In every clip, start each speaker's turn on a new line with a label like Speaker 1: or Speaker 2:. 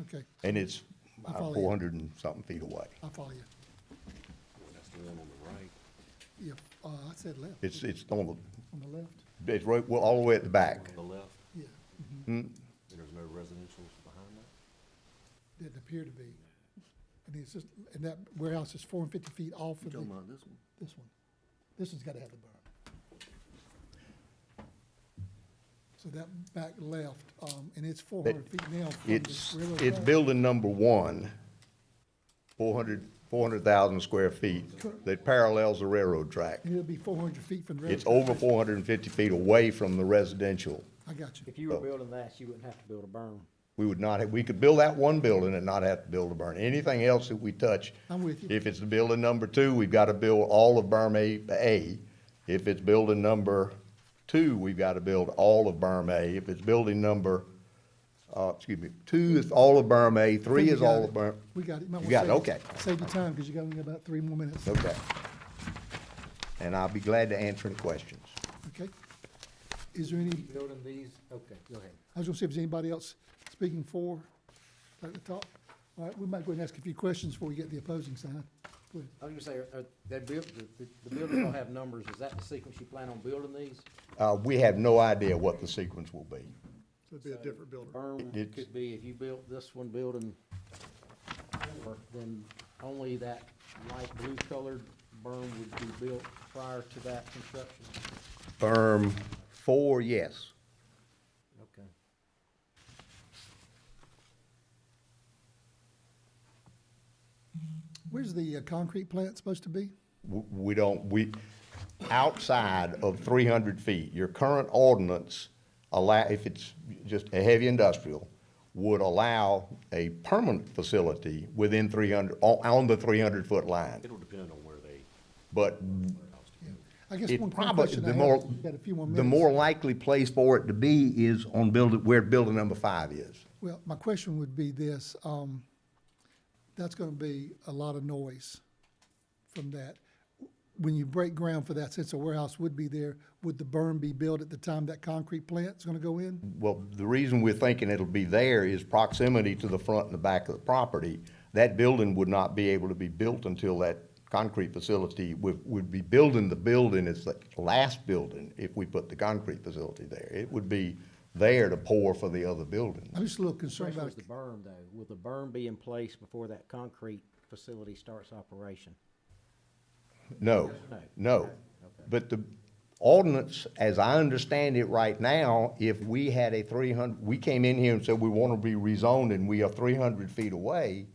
Speaker 1: Okay,
Speaker 2: And it's uh,
Speaker 1: I follow you.
Speaker 2: four hundred and something feet away.
Speaker 1: I follow you.
Speaker 3: That's the one on the right.
Speaker 1: Yeah, uh, I said left,
Speaker 2: It's, it's on
Speaker 1: on the left,
Speaker 2: the, it's right, well, all the way at the back.
Speaker 3: On the left,
Speaker 1: yeah,
Speaker 3: and there's no residential behind that?
Speaker 1: didn't appear to be. And it's just, and that warehouse is four and fifty feet off of the,
Speaker 3: mind this one?
Speaker 1: this one. This one's gotta have the berm. So that back left, um, and it's four hundred feet now from the
Speaker 2: It's,
Speaker 1: railroad
Speaker 2: it's
Speaker 1: track.
Speaker 2: building number one, four hundred, four hundred thousand square feet that parallels the railroad track.
Speaker 1: And It'll be four hundred feet from the railroad.
Speaker 2: It's over four hundred and fifty feet away from the residential.
Speaker 1: I got you.
Speaker 4: If you were
Speaker 2: Oh.
Speaker 4: building that, you wouldn't have to build a berm.
Speaker 2: We would not, have- we could build that one building and not have to build a burn. Anything else that we touch.
Speaker 1: I'm with you.
Speaker 2: If it's the building number two, we've got to build all of berm A, A. If it's building number two, we've got to build all of berm A. If it's building number, uh, excuse me, two is all of berm A, three
Speaker 1: Think
Speaker 2: is
Speaker 1: we got
Speaker 2: all
Speaker 1: it.
Speaker 2: of berm.
Speaker 1: We got it. might
Speaker 2: You
Speaker 1: wanna
Speaker 2: got it,
Speaker 1: save-
Speaker 2: okay.
Speaker 1: Save your time, because you got only about three more minutes,
Speaker 2: Okay. And I'll be glad to answer any questions.
Speaker 1: okay? Is there any,
Speaker 4: Building these, okay, go ahead.
Speaker 1: I was gonna see if there's anybody else speaking for, at the top. All right, we might go and ask a few questions before we get the opposing side. Go ahead.
Speaker 4: I was gonna say, are, are, they built, the, the- the buildings don't have numbers, is that the sequence you plan on building these?
Speaker 2: Uh, we have no idea what the sequence will be.
Speaker 5: So it'd be a different builder.
Speaker 4: Berm
Speaker 2: It's-
Speaker 4: could be, if you built this one building, over, then only that light blue colored berm would be built prior to that construction?
Speaker 2: Berm four, yes.
Speaker 4: Okay.
Speaker 1: Where's the uh, concrete plant supposed to be?
Speaker 2: w- we don't, we, outside of three hundred feet, your current ordinance allow, if it's just a heavy industrial, would allow a permanent facility within three hundred, on, on the three hundred foot line.
Speaker 3: It'll depend on where they,
Speaker 2: But
Speaker 1: I guess one
Speaker 2: it
Speaker 1: quick
Speaker 2: probably,
Speaker 1: question I
Speaker 2: the
Speaker 1: have,
Speaker 2: more,
Speaker 1: you got a few more
Speaker 2: the
Speaker 1: minutes.
Speaker 2: more likely place for it to be is on building, where building number five is.
Speaker 1: Well, my question would be this, um, that's gonna be a lot of noise from that. When you break ground for that, since a warehouse would be there, would the berm be built at the time that concrete plant's gonna go in?
Speaker 2: Well, the reason we're thinking it'll be there is proximity to the front and the back of the property. That building would not be able to be built until that concrete facility, would, would be building the building as the last building if we put the concrete facility there. It would be there to pour for the other building.
Speaker 1: I'm just a little concerned
Speaker 4: Question
Speaker 1: about it.
Speaker 4: was the berm though, will the berm be in place before that concrete facility starts operation?
Speaker 2: No, no. But the ordinance, as I understand it right now, if we had a three hundred, we came in here and said we want to be rezoned and we are three hundred feet away,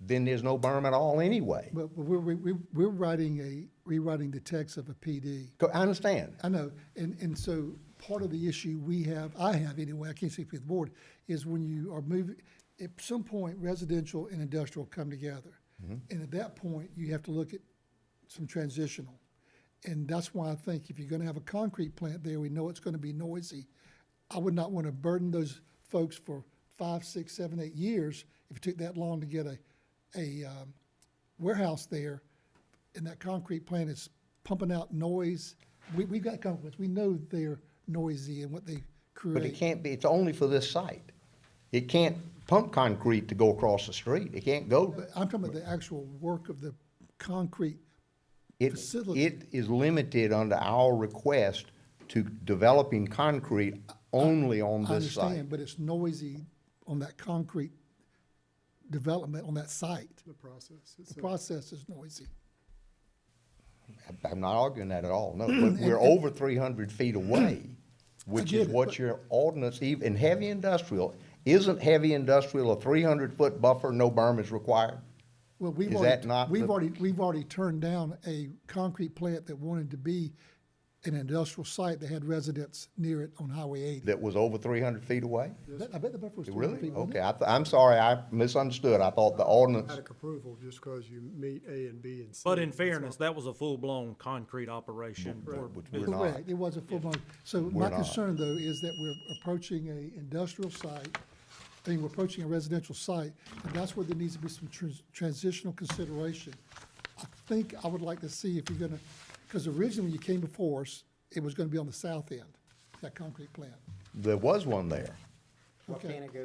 Speaker 2: then there's no berm at all anyway.
Speaker 1: But but we're, we're, we're writing a, rewriting the text of a PD.
Speaker 2: Co- I understand.
Speaker 1: I know, and, and so part of the issue we have, I have anyway, I can't speak for the board, is when you are moving, at some point residential and industrial come together. And at that point, you have to look at some transitional. And that's why I think if you're gonna have a concrete plant there, we know it's gonna be noisy. I would not wanna burden those folks for five, six, seven, eight years if it took that long to get a, a, um, warehouse there, and that concrete plant is pumping out noise. We, we've got complaints, we know they're noisy and what they
Speaker 2: But it
Speaker 1: create.
Speaker 2: can't be, it's only for this site. It can't pump concrete to go across the street. It can't go,
Speaker 1: But I'm talking about the actual work of the concrete.
Speaker 2: it,
Speaker 1: Facility.
Speaker 2: it is limited under our request to developing concrete only on
Speaker 1: I
Speaker 2: this site.
Speaker 1: understand, but it's noisy on that concrete development on that site.
Speaker 5: The process. It's
Speaker 1: The
Speaker 5: a-
Speaker 1: process is noisy.
Speaker 2: I- I'm not arguing that at all, no, but we're over three hundred feet away, which
Speaker 1: get
Speaker 2: is
Speaker 1: it,
Speaker 2: what
Speaker 1: but-
Speaker 2: your ordinance, even heavy industrial, isn't heavy industrial a three hundred foot buffer, no berm is required?
Speaker 1: Well, we've
Speaker 2: Is that
Speaker 1: already,
Speaker 2: not
Speaker 1: we've
Speaker 2: the-
Speaker 1: already, we've already turned down a concrete plant that wanted to be an industrial site that had residents near it on Highway eighty.
Speaker 2: That was over three hundred feet away?
Speaker 1: I bet- I bet the buffer was three hundred
Speaker 2: Really? Oh,
Speaker 1: feet. wasn't it?
Speaker 2: Okay, I, th- I'm sorry, I misunderstood. I thought the ordinance,
Speaker 5: Automatic approval just because you meet A and B and C.
Speaker 6: But in
Speaker 5: That's all.
Speaker 6: fairness, that was a full-blown concrete operation. for
Speaker 2: which
Speaker 6: business.
Speaker 2: we're not.
Speaker 1: Correct, it was a full blown, so my
Speaker 2: We're not.
Speaker 1: concern though is that we're approaching a industrial site, I mean, we're approaching a residential site, and that's where there needs to be some trans- transitional consideration. I think I would like to see if you're gonna, because originally when you came before us, it was gonna be on the south end, that concrete plant.
Speaker 2: There was one there.
Speaker 4: Well,
Speaker 1: Okay.
Speaker 4: can it go